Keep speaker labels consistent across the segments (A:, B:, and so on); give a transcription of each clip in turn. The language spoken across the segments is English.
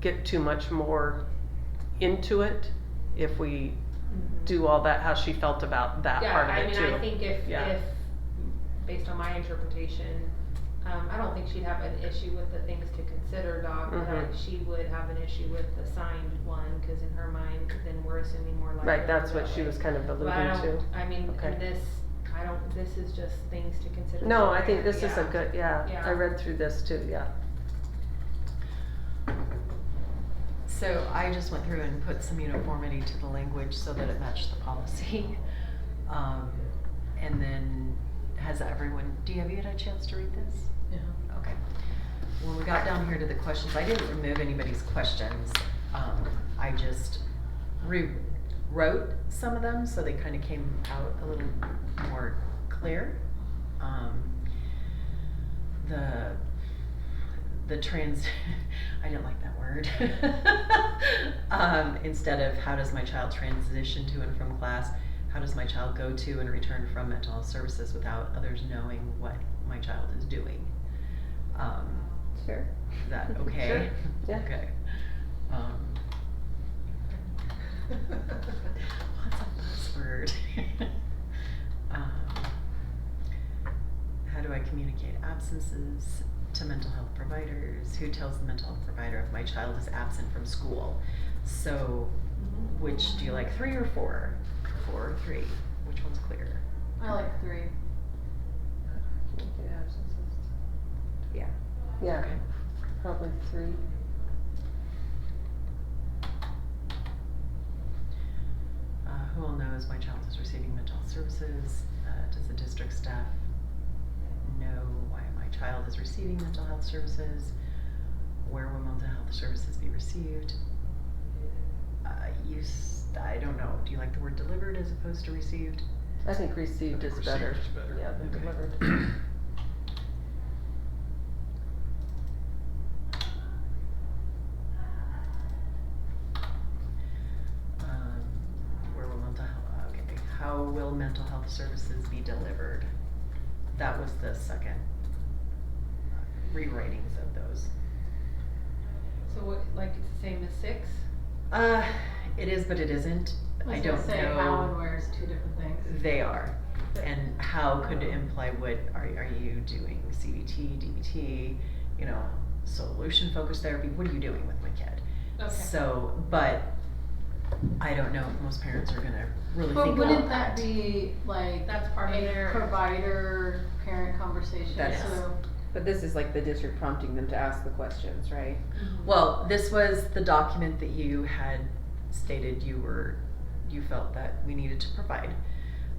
A: get too much more into it if we do all that, how she felt about that
B: yeah,
A: part of
B: I
A: it
B: mean,
A: too.
B: I think if,
A: Yeah.
B: if, based on my interpretation, um, I don't think she'd have an issue with the things to consider, Doc. but
A: Mhm.
B: She would have an issue with the signed one, cause in her mind, then we're assuming more likely.
A: Right, that's what she was kind of
B: But I
A: alluding
B: don't,
A: to.
B: I mean,
A: Okay.
B: in this, I don't, this is just things to consider.
A: No, I
B: somewhere,
A: think this is a
B: yeah.
A: good, yeah, I
B: Yeah.
A: read through this too, yeah.
C: So I just went through and put some uniformity to the language so that it matched the policy. Um, and then, has everyone, do you, have you had a chance to read this? Yeah. Okay. When we got down here to the questions, I didn't remove anybody's questions. Um, I just rewrote some of them, so they kind of came out a little more clear. Um, the the trans I didn't like that word. um, instead of how does my child transition to and from class, how does my child go to and return from mental health services without others knowing what my child is doing? Um,
A: Sure.
C: is that okay?
A: Sure, yeah.
C: Okay. Um, What's a buzzword? um, how do I communicate absences to mental health providers? Who tells the mental health provider if my child is absent from school? So, which do you like, three or four? Four or three? Which one's clearer?
D: I like three.
A: Yeah,
C: Okay.
A: probably three.
C: Uh, who all knows my child is receiving mental health services? Uh, does the district staff know why my child is receiving mental health services? Where will mental health services be received? Uh, you, s- I don't know. Do you like the word delivered as opposed to received?
A: I think received is better.
E: Received is better.
A: Yeah, than
C: Okay.
A: delivered.
C: Um, where will mental health? Okay, how will mental health services be delivered? That was the second uh, rewritings of those.
B: So what, like, it's the same as six?
C: Uh, it is, but it isn't. I
D: was
C: don't
D: gonna say
C: know.
D: how and where is two different things.
C: They are. And how could it imply what are, are you doing? CBT, DBT, you know, solution focused therapy? What are you doing with my kid? So, but I don't know if most parents are gonna really
D: But
C: think
D: wouldn't
C: about
D: that be like
B: That's part of
D: a
B: their,
D: provider parent conversation?
C: That is.
D: So
F: But this is like the district prompting them to ask the questions, right?
B: Mhm.
C: Well, this was the document that you had stated you were, you felt that we needed to provide.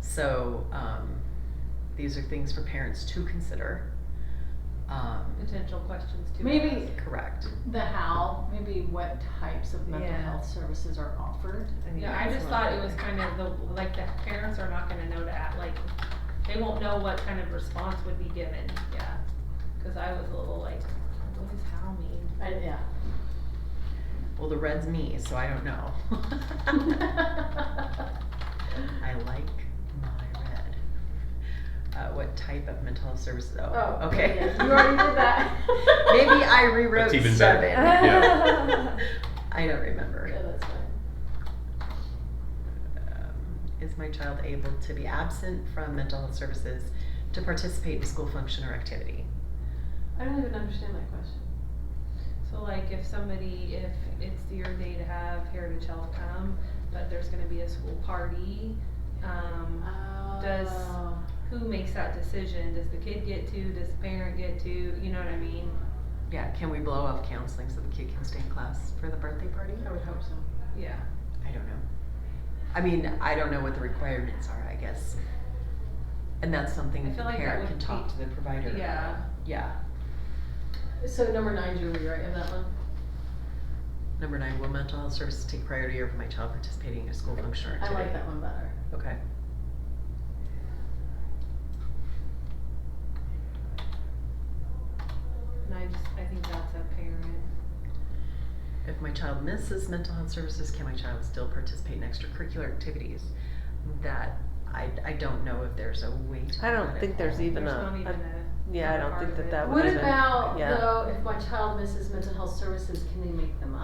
C: So, um, these are things for parents to consider. Um,
B: potential questions too.
D: maybe
C: correct.
D: the how, maybe what types of mental
B: Yeah.
D: health services are offered.
B: Yeah, I just thought it was kind of the, like, the parents are not gonna know that, like, they won't know what kind of response would be given, yeah. Cause I was a little like, what does how mean?
D: I, yeah.
C: Well, the red's me, so I don't know. I like my red. Uh, what type of mental health services? Oh,
D: Oh,
C: okay.
D: yeah, you already did that.
C: Maybe I rewrote
E: That's even
C: seven.
E: better.
F: Yeah.
C: I don't remember.
D: Yeah, that's fine.
C: Um, is my child able to be absent from mental health services to participate in school function or activity?
D: I don't even understand that question.
B: So like if somebody, if it's your day to have Heritage Health come, but there's gonna be a school party, um, Does-
D: Oh.
B: who makes that decision? Does the kid get to, does the parent get to, you know what I mean?
C: Yeah, can we blow off counseling so the kid can stay in class for the birthday party?
D: I would hope so.
B: Yeah.
C: I don't know. I mean, I don't know what the requirements are, I guess. And that's something
B: I feel
C: the
B: like that
C: parent
B: would
C: can talk
B: be-
C: to the provider. about.
B: Yeah.
C: Yeah.
D: So number nine, Julie, right, of that one?
C: Number nine, will mental health services take priority over my child participating in a school function or
D: I
C: activity?
D: like that one better.
C: Okay.
B: And I just, I think that's a parent.
C: If my child misses mental health services, can my child still participate in extracurricular activities? That, I, I don't know if there's a way to.
A: I don't
C: that
A: think
C: at
A: there's
C: all.
A: even
B: There's
A: a-
B: not even
A: a-
B: a.
A: Yeah, I
B: Not
A: don't
B: part
A: think
B: of
A: that
B: it.
A: that would
D: What
A: even.
D: about
A: yeah.
D: though if my child misses mental health services, can they make them up?